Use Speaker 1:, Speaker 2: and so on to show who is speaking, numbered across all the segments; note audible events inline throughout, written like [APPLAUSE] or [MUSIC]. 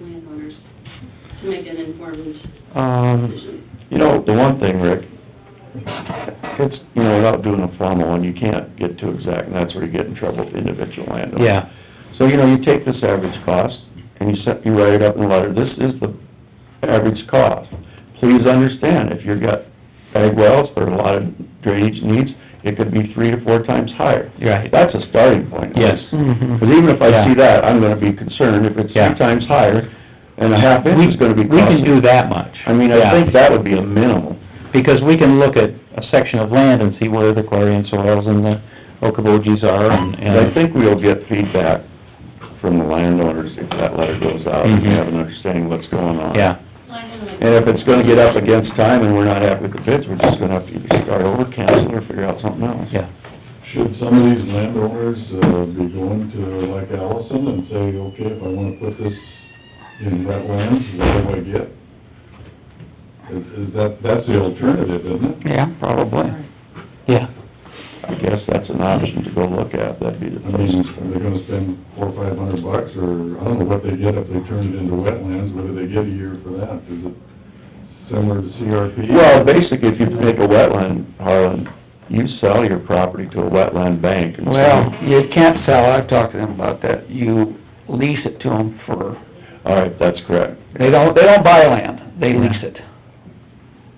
Speaker 1: landowners to make an informed
Speaker 2: Um,
Speaker 1: decision.
Speaker 2: you know, the one thing, Rick, it's, you know, without doing a formal one, you can't get too exact, and that's where you get in trouble with individual landowners.
Speaker 3: Yeah,
Speaker 2: So, you know, you take this average cost, and you set, you write it up in a letter, this is the average cost. Please understand, if you've got bag wells or a lot of drainage needs, it could be three to four times higher.
Speaker 3: right,
Speaker 2: That's a starting point.
Speaker 3: yes.
Speaker 4: Mm-hmm.
Speaker 2: Because even if I
Speaker 3: Yeah.
Speaker 2: see that, I'm gonna be concerned if it's
Speaker 3: Yeah.
Speaker 2: three times higher, and a half inch is gonna be
Speaker 3: We can
Speaker 2: costly.
Speaker 3: do that much.
Speaker 2: I mean,
Speaker 3: Yeah.
Speaker 2: I think that would be a minimum.
Speaker 3: Because we can look at a section of land and see where the clarion soils and the okobogees are and,
Speaker 2: And I
Speaker 3: and,
Speaker 2: think we'll get feedback from the landowners if that letter goes out, and they
Speaker 3: Mhm.
Speaker 2: have an understanding what's going on.
Speaker 3: yeah,
Speaker 2: And if it's gonna get up against time and we're not happy with the bids, we're just gonna have to either start over, cancel, or figure out something else.
Speaker 3: yeah.
Speaker 5: Should some of these landowners, uh, be going to like Allison and say, okay, if I wanna put this in wetlands, what do I get? Is, is that, that's the alternative, isn't it?
Speaker 3: Yeah,
Speaker 2: Probably.
Speaker 3: Yeah,
Speaker 2: I guess that's an option to go look at, that'd be the
Speaker 5: I mean,
Speaker 2: place.
Speaker 5: are they gonna spend four, or five hundred bucks, or I don't know what they get if they turn it into wetlands, what do they get a year for that? Is it similar to CRP?
Speaker 2: Well, basically, if you make a wetland, Harlan, you sell your property to a wetland bank and
Speaker 4: Well,
Speaker 2: say,
Speaker 4: you can't sell, I've talked to them about that, you lease it to them for,
Speaker 2: all right, that's correct.
Speaker 4: they don't, they don't buy land, they lease it.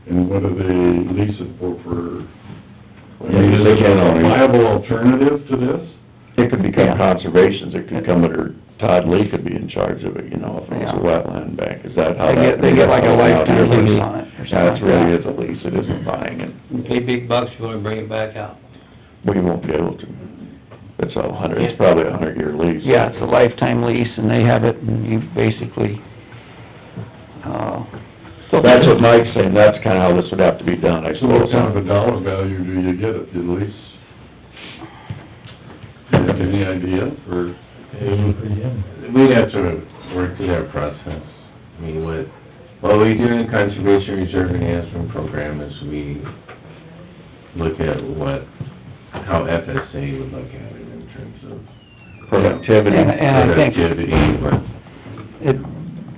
Speaker 5: And what do they lease it for, for?
Speaker 2: Yeah,
Speaker 5: I mean, is
Speaker 2: they
Speaker 5: it
Speaker 2: can
Speaker 5: a
Speaker 2: only-
Speaker 5: viable alternative to this?
Speaker 2: It could
Speaker 4: Yeah.
Speaker 2: become conservations, it could come under, Todd Lee could be in charge of it, you know, if it was
Speaker 4: Yeah.
Speaker 2: a wetland bank, is
Speaker 3: Oh,
Speaker 2: that how
Speaker 4: They
Speaker 2: that?
Speaker 4: get, they get like a lifetime
Speaker 2: Yeah,
Speaker 4: lease on it or something.
Speaker 2: Yeah, it's really
Speaker 4: like
Speaker 2: is a lease, it isn't buying it,
Speaker 6: You pay big bucks, you wanna bring it back out.
Speaker 2: we won't be able to. It's a hundred, it's probably a hundred year lease.
Speaker 4: that. Yeah, it's a lifetime lease and they have it and you basically, uh,
Speaker 2: So That's what Mike's saying, that's kinda how this would have to be done, I
Speaker 5: So what
Speaker 2: suppose.
Speaker 5: kind of a dollar value do you get if you lease? Do you have any idea for,
Speaker 7: We'd have to work through that process. I mean, what, what we do in the Conservation Reserve Enhancement Program is we look at what, how FSA would look at it in terms of
Speaker 2: Productivity.
Speaker 4: and, and I think
Speaker 7: productivity, what,
Speaker 4: it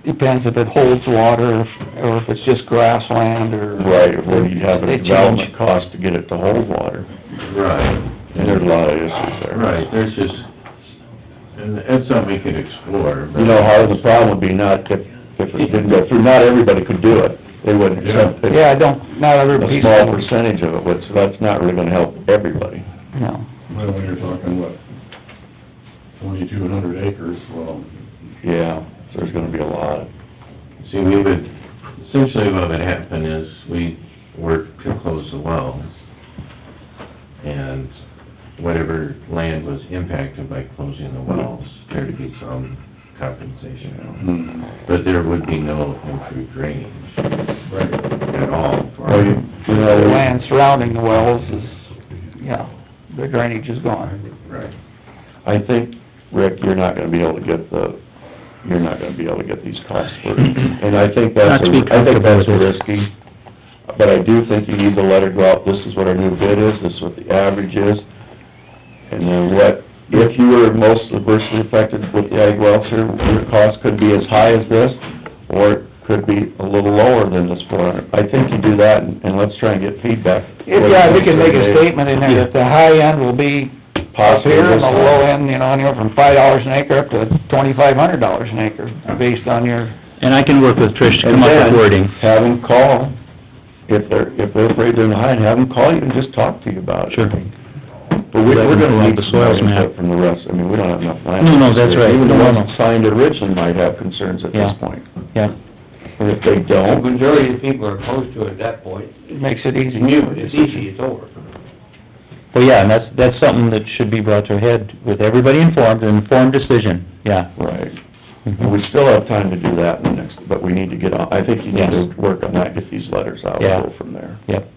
Speaker 4: depends if it holds water or if it's just grassland or.
Speaker 2: Right, where you have
Speaker 4: They
Speaker 2: a
Speaker 4: change.
Speaker 2: development cost to get it to hold water,
Speaker 7: right,
Speaker 2: and there's a lot of issues there.
Speaker 7: right, there's just, and that's something we could explore. but-
Speaker 2: You know, how the problem would be not if, if it didn't go through, not everybody could do it, they wouldn't accept it.
Speaker 4: Yeah, I don't, not every
Speaker 2: A
Speaker 4: piece of,
Speaker 2: small percentage of it, which, that's not really gonna help everybody.
Speaker 4: no.
Speaker 5: well, when you're talking, what, twenty-two hundred acres, well,
Speaker 2: Yeah, so there's gonna be a lot.
Speaker 7: See, we would, essentially what would happen is we work to close the wells, and whatever land was impacted by closing the wells, there'd be some compensation.
Speaker 2: Mm.
Speaker 7: But there would be no improved drainage
Speaker 5: right,
Speaker 7: at all
Speaker 2: Well, you,
Speaker 7: for,
Speaker 2: you
Speaker 4: The
Speaker 2: know,
Speaker 4: land surrounding the wells is, yeah, the drainage is gone.
Speaker 7: right.
Speaker 2: I think, Rick, you're not gonna be able to get the, you're not gonna be able to get these costs
Speaker 3: [CLEARS THROAT]
Speaker 2: for, and I think that's,
Speaker 3: Not to be
Speaker 2: a- I
Speaker 3: comfortable
Speaker 2: think that's
Speaker 3: with it.
Speaker 2: risky. But I do think you need the letter go out, this is what our new bid is, this is what the average is, and then what, if you were most adversely affected with the ag wells here, your cost could be as high as this, or it could be a little lower than this four hundred. I think you do that, and and let's try and get feedback.
Speaker 4: If, yeah, we can make a statement in there that the high end will be up
Speaker 2: Possibly
Speaker 4: here and
Speaker 2: this
Speaker 4: the
Speaker 2: high.
Speaker 4: low end, you know, anywhere from five dollars an acre up to twenty-five hundred dollars an acre, based on your,
Speaker 3: And I can work with Trish to
Speaker 2: And
Speaker 3: come up
Speaker 2: then
Speaker 3: with wording.
Speaker 2: Have them call, if they're, if they're afraid they're behind, have them call you and just talk to you about it.
Speaker 3: Sure.
Speaker 2: But we, we're gonna
Speaker 3: Like
Speaker 2: need
Speaker 3: the
Speaker 2: some more
Speaker 3: soils map.
Speaker 2: input from the rest, I mean, we don't have enough land.
Speaker 3: No, no, that's right.
Speaker 2: Even the
Speaker 3: No,
Speaker 2: ones
Speaker 3: no.
Speaker 2: signed originally might have concerns at this
Speaker 3: Yeah.
Speaker 2: point.
Speaker 3: Yeah.
Speaker 2: And if they
Speaker 6: The
Speaker 2: don't,
Speaker 6: majority of people are opposed to it at that point.
Speaker 4: it makes it easy.
Speaker 6: It's easy, it's over.
Speaker 3: Well, yeah, and that's, that's something that should be brought to a head with everybody informed, an informed decision, yeah.
Speaker 2: right, And we still have time to do that in the next, but we need to get on, I think you need to work on that, get these letters out,
Speaker 3: Yeah.
Speaker 2: and go from there.
Speaker 3: Yep.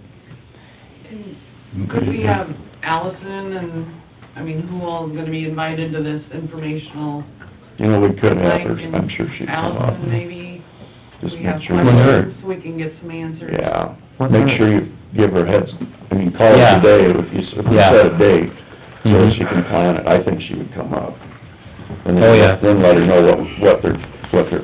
Speaker 8: Could we have Allison and, I mean, who all is gonna be invited to this informational?
Speaker 2: You know, we could have her,
Speaker 8: night?
Speaker 2: I'm sure she'd come up,
Speaker 8: Allison, maybe,
Speaker 2: just
Speaker 8: we have
Speaker 2: make sure.
Speaker 8: questions, we can get some answers.
Speaker 2: Yeah, make sure you give her heads, I mean, call her
Speaker 3: Yeah.
Speaker 2: today, if you, if you
Speaker 3: Yeah.
Speaker 2: set a date, so that
Speaker 3: Mhm.
Speaker 2: she can plan it, I think she would come up. And
Speaker 3: Oh,
Speaker 2: then-
Speaker 3: yeah.
Speaker 2: Then let her know what, what their, what their